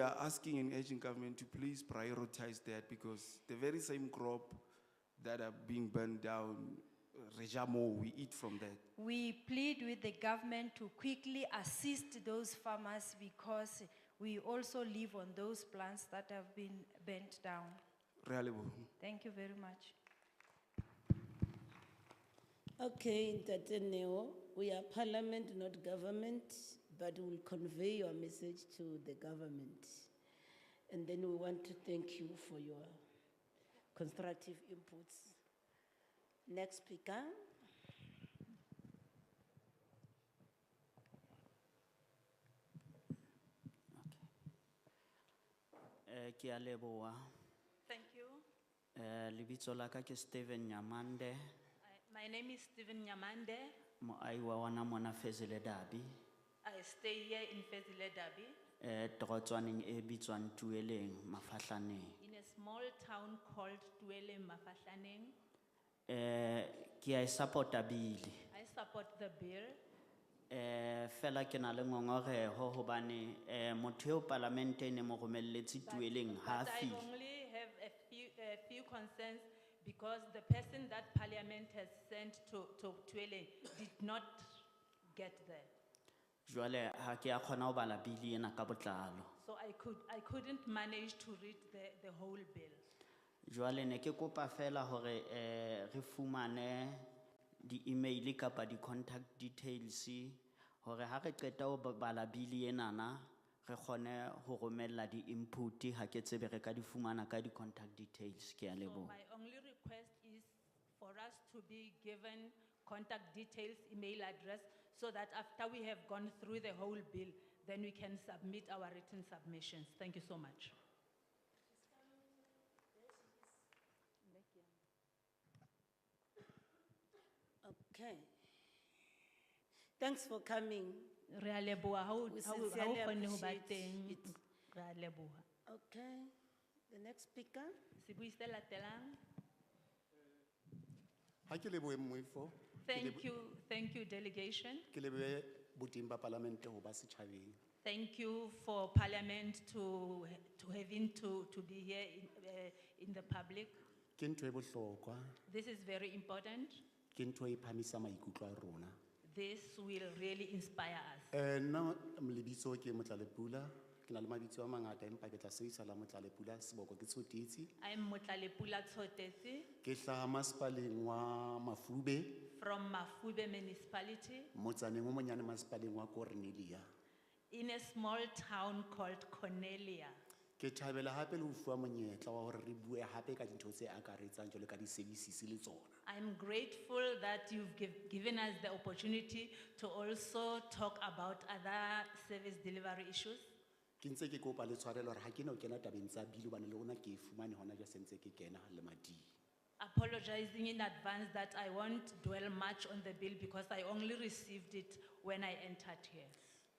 We are asking an Asian government to please prioritize that because the very same crop that are being burned down, Rejamo, we eat from that. We plead with the government to quickly assist those farmers because we also live on those plants that have been burnt down. Re a leboha. Thank you very much. Okay, Ntate Neo, we are parliament, not government, but we'll convey your message to the government. And then we want to thank you for your constructive inputs. Next speaker. Eh, ke a leboa. Thank you. Eh, lebitso la ka ke Steven Nyamande, I- My name is Stephen Nyamande. moahi wa wana mona Fezile Dabi. I stay here in Fezile Dabi Eh, torotswaneng e bitswang Tueleng, Mafahlaneng. in a small town called Tuele Mafahlaneng. Eh, ke a e support-a bili. I support the bill. Eh, fela ke na le ngongoreho hobane, eh, motho eo palamente e ne mo romelletse Tueleng ha a But I fihle. only have a few, a few concerns because the person that parliament has sent to, to Tuele did not get there. Jwale ha ke a kgona ho bala bili ena ka botlalo. So I could, I couldn't manage to read the, the whole bill. Jwale ne ke kopa fela hore eh re fumane di-email kapa di-contact details hore ha re qeta ho ba- bala bili enana re kgone ho romella di-input ha ke tsebe re ka di fumana ka di-contact details ke a So leboha. my only request is for us to be given contact details, email address, so that after we have gone through the whole bill, then we can submit our written submissions. Thank you so much. Okay. Thanks for coming. Re a leboha ha o- We ha o- ha o sincerely kgonne ho ba appreciate teng. it. Re a leboha. Okay, the next speaker. Sebui se latelang. Ha ke lebohe moifo. Thank you, thank you delegation. Ke lebohe boteng ba palamente ho ba setjhabeng. Thank you for parliament to, to having to, to be here in, eh, in the public. Ke ntho e bohlokwa, This is very important. ke ntho e phahamisa maikutlo a rona. This will really inspire us. Eh nna lebitso ke Motlalepula, ke na le mabitso a mangata empa ke tla sebedisa la Motlalepula seboko ke tshotitse. I'm Motlalepula Tsotesi Ke hlaha masepaleng wa Mafube, from Mafube municipality motsaneng o monyane masepaleng wa Cornelia. in a small town called Cornelia. Ke thabela hape le ho fuwa monyetla wa hore re bue hape ka dintho tse akaretsang jwalo ka di-services le tsona. I'm grateful that you've giv- given us the opportunity to also talk about other service delivery issues. ke ntse ke kopa le tshwarelo hore ha ke na ho kena tabeng tsa bili hobane le rona ke e fumane hona jwa sentse ke kena le mading Apologizing in advance that I won't dwell much on the bill because I only received it when I entered here.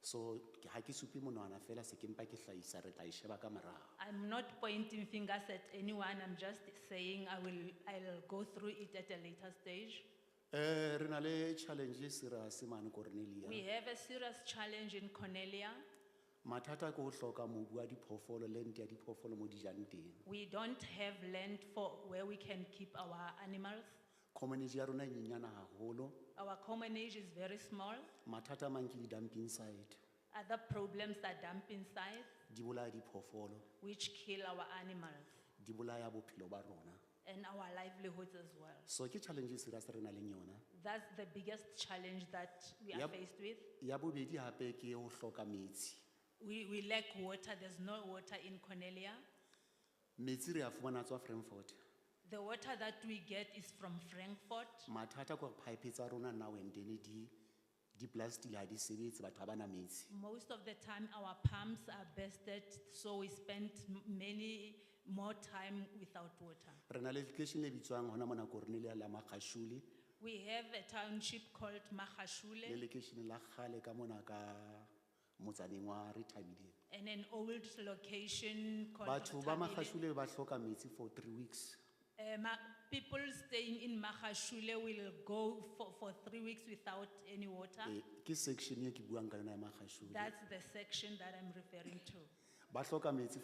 so ke- ha ke supe monwana fela se ke mpa ke hlahisa re tla e sheba ka morao I'm not pointing fingers at anyone, I'm just saying I will, I'll go through it at a later stage. um re na le challenge e serious mane cornelia We have a serious challenge in Cornelia. mathata ke ho hloka mobu wa diphoofolo lente ya diphoofolo mo dijang teng We don't have land for where we can keep our animals. community ya rona e nyenyana haholo Our common age is very small. mathata a mang ke di-dumping site Other problems are dumping sites, di bolaya diphoofolo which kill our animals di bolaya bophelo ba rona and our livelihoods as well. so ke challenge e serious re na leng yona That's the biggest challenge that we are Yep. faced with. ya bobedi hape ke ho hloka metsi We, we lack water, there's no water in Cornelia. metsi re a fumana tswa frankfort The water that we get is from Frankfurt. mathata ke gore pipe tsa rona now and then di di-plastic ha di sebetse batho ha ba na metsi Most of the time, our pumps are busted, so we spend m- many more time without water. re na le lekeishene le bitswang hona mona cornelia la magashule We have a township called le Mahashule lekeishene la kgale ka mona ka motsaneng wa retabileng and an old location called. batho ba Matabele. magashule ba hloka metsi for three weeks Eh, ma- people staying in Mahashule will go for, for three weeks without any water. Eh, ke section e ke buang ka yona ya magashule That's the section that I'm referring to. ba hloka metsi